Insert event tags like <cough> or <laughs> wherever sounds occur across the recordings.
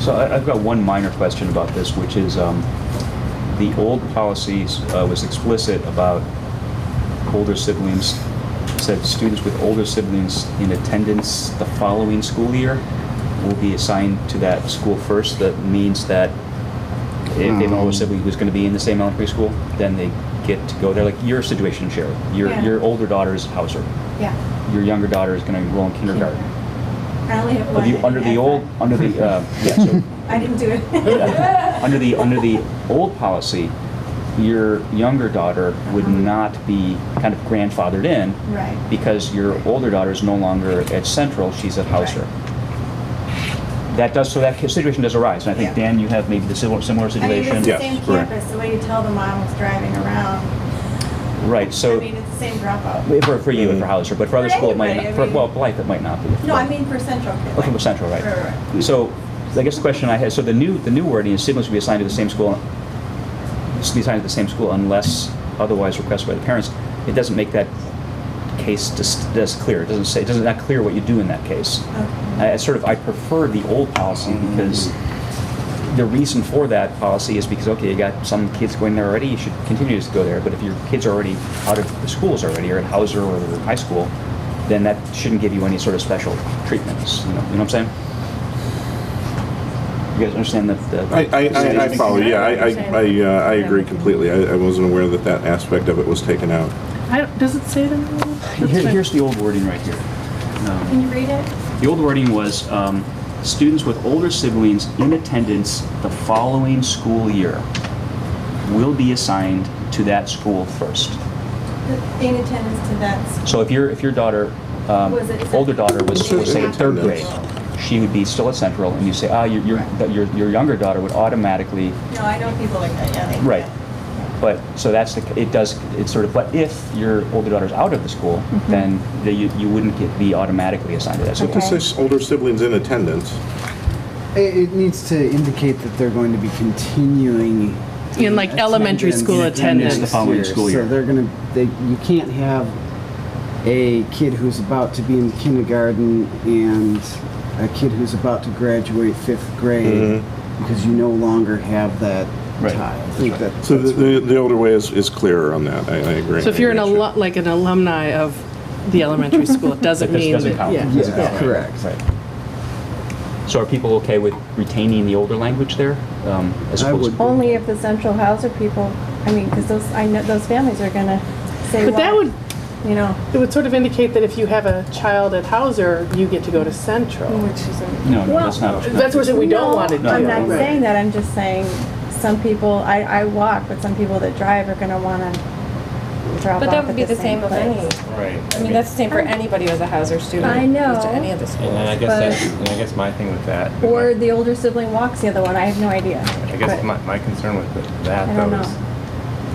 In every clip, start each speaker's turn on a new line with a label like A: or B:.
A: So I- I've got one minor question about this, which is, um, the old policy uh, was explicit about older siblings, said students with older siblings in attendance the following school year will be assigned to that school first. That means that if they have an older
B: Um.
A: sibling who's going to be in the same elementary school, then they get to go there. Like your situation, Cheryl, your,
C: Yeah.
A: your older daughter's Hauser,
C: Yeah.
A: your younger daughter is going to enroll in kindergarten.
C: I only have
A: But
C: one.
A: you,
C: I
A: under the
C: didn't
A: old,
C: add
A: under the, uh, yeah, so
C: one. I didn't do it.
A: <laughs> yeah. Under the, under the old policy, your younger daughter would not be kind of grandfathered in
C: Right.
A: because your older daughter is no longer at Central, she's at Hauser. That does, so that situation does arise, and I think,
C: Yeah.
A: Dan, you have maybe the similar, similar
C: I mean, it's
A: situation.
B: Yeah.
C: the same
B: Yes, correct.
C: campus, the way you tell the mom was driving around.
A: Right,
C: I
A: so,
C: mean, it's the same dropout.
A: for, for you and for Hauser, but for other
C: For
A: school, it might
C: anybody,
A: not,
C: I
A: for,
C: mean-
A: well, Blythe, it might not be.
C: No, I mean for Central. Kid,
A: Okay,
C: like-
A: well, Oh, Central, right.
C: Right, right,
A: So, I guess the question I had, so the new, the new wording is siblings will be assigned to the same school, be assigned to the same school unless otherwise requested by the parents. It doesn't make that case just, just clear. It doesn't say, it doesn't, not clear what you do in that case.
C: Okay.
A: I I sort of, I prefer the old policy because the reason for that policy is because, okay, you got some kids going there already, you should continue to go there. But if your kids are already out of the schools already, or at Hauser or high school, then that shouldn't give you any sort of special treatments, you know, you know what I'm saying? You guys understand that? the-
B: I, I, I, I follow, yeah, I, I, I, uh, I agree completely. I, I wasn't aware that that aspect of it was taken out.
D: I don't, does it say that? That's
A: Here-
D: fine.
A: Here's the old wording right here. Um,
C: Can you read it?
A: The old wording was, um, students with older siblings in attendance the following school year will be assigned to that school first.
C: In attendance to that.
A: So if your, if your daughter, um,
C: Was it-
A: older daughter was, was say in third grade,
B: Attendance.
A: she would be still at Central, and you say, ah, your, your, that your, your younger daughter would automatically,
C: No, I know people like that, yeah. they-
A: Right. but, so that's the, it does, it's sort of, but if your older daughter's out of the school,
C: Mm-hmm.
A: then the- you, you wouldn't get, be automatically assigned to that
B: So
A: school.
C: Okay.
B: this is older siblings in attendance.
E: It, it needs to indicate that they're going to be continuing
D: In, like, elementary school attendance.
A: The following school year.
E: So they're going to. They, you can't have a kid who's about to be in kindergarten and a kid who's about to graduate fifth grade because you no longer have that
A: Mm-hmm. Right.
E: tie. I think that,
B: So
E: that's
B: the, the, the older way is, is clearer on that. I, I agree.
D: So if you're an
B: I agree
D: alum, like an alumni of the elementary school, it doesn't
A: That does-
D: mean
A: doesn't
D: that-
A: count.
D: yeah.
E: yeah,
A: Doesn't count.
E: correct.
A: Right. So are people okay with retaining the older language there? um, as
E: I
A: opposed-
E: would be.
F: Only if the central houser people, I mean, because those, I know, those families are gonna say,
D: But that
F: "Well,
D: would
F: You know,
D: it would sort of indicate that if you have a child at Hauser, you get to go to Central.
F: which is a.
A: No, no, that's not.
D: That's what we don't
F: No,
D: want to do.
F: I'm not
D: Right.
F: saying that, I'm just saying, some people, I, I walk, but some people that drive are gonna wanna drop off
G: But that would be
F: at
G: the
F: the
G: same
F: same
G: of any,
F: place.
H: Right.
G: I mean, that's the same for anybody who's a Hauser student.
F: I
G: who goes
F: know,
G: To any of the schools.
H: And then I guess
F: But-
H: that's, and I guess my thing with that.
F: Or the older sibling walks the other one, I have no idea.
H: I
F: But-
H: guess my, my concern with the-
F: I
H: that
F: don't
H: though is,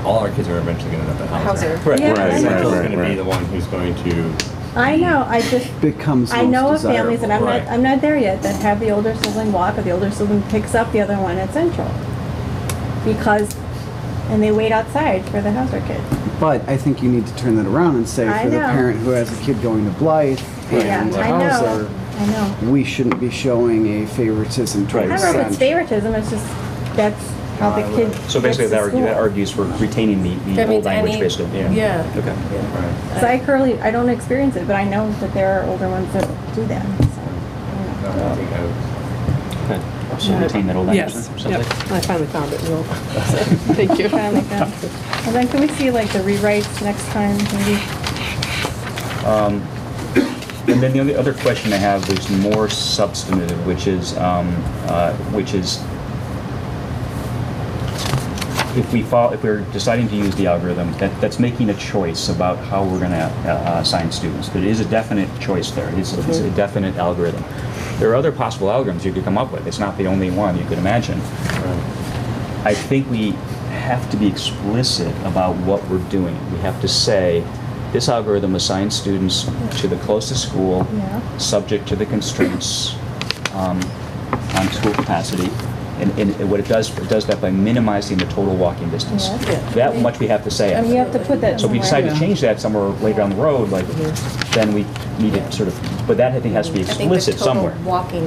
H: all our kids are eventually gonna end up at Hauser.
G: Hauser.
A: Correct.
F: Yeah,
B: Right,
F: I
B: right,
F: know.
H: Central's
B: right.
H: gonna be the one who's going to,
F: I know, I just,
E: becomes.
F: I
E: most
F: know of families,
E: desirable.
F: and I'm not,
H: Right.
F: I'm not there yet, that have the older sibling walk, or the older sibling picks up the other one at Central. Because, and they wait outside for the Hauser kid.
E: But I think you need to turn that around and say
F: I
E: for the
F: know.
E: parent who has a kid going to Blythe
F: Yeah,
E: and
F: I
E: Hauser,
F: know, I know.
E: we shouldn't be showing a favoritism
F: I
E: towards
F: don't know if it's
E: Central.
F: favoritism, it's just, that's how the kid gets to school.
A: Uh, So basically, that argue- that argues for retaining the, the
G: That
A: old
G: means
A: language,
G: any-
A: basically.
D: Yeah.
A: Okay.
H: right.
F: So I currently, I don't experience it, but I know that there are older ones that do that, so.
H: I
F: I
H: don't think I would-
A: So retain that old language.
D: Yes,
A: or something.
D: yep. I finally found it, Will. <laughs> Thank you.
F: don't know.
A: <laughs>
F: Kinda like that. And then can we see like the rewrites next time, maybe?
A: And then the only other question I have is more substantive, which is, um, uh, which is, if we follow, if we're deciding to use the algorithm, that, that's making a choice about how we're gonna uh, uh, assign students. But it is a definite choice there. It is, it's a definite algorithm. There are other possible algorithms you could come up with. It's not the only one you could imagine. I think we have to be explicit about what we're doing. We have to say, this algorithm assigns students to the closest school,
F: Yeah.
A: subject to the constraints um, on school capacity. And, and what it does, it does that by minimizing the total walking distance.
F: Yes.
A: That much we have to say.
F: And Um, you have to put that
A: So if we
F: somewhere.
A: decide to change that somewhere later down the road, like, then we need to sort of, but that I think has to be
G: I think the
A: explicit
G: total
A: somewhere.
G: Walking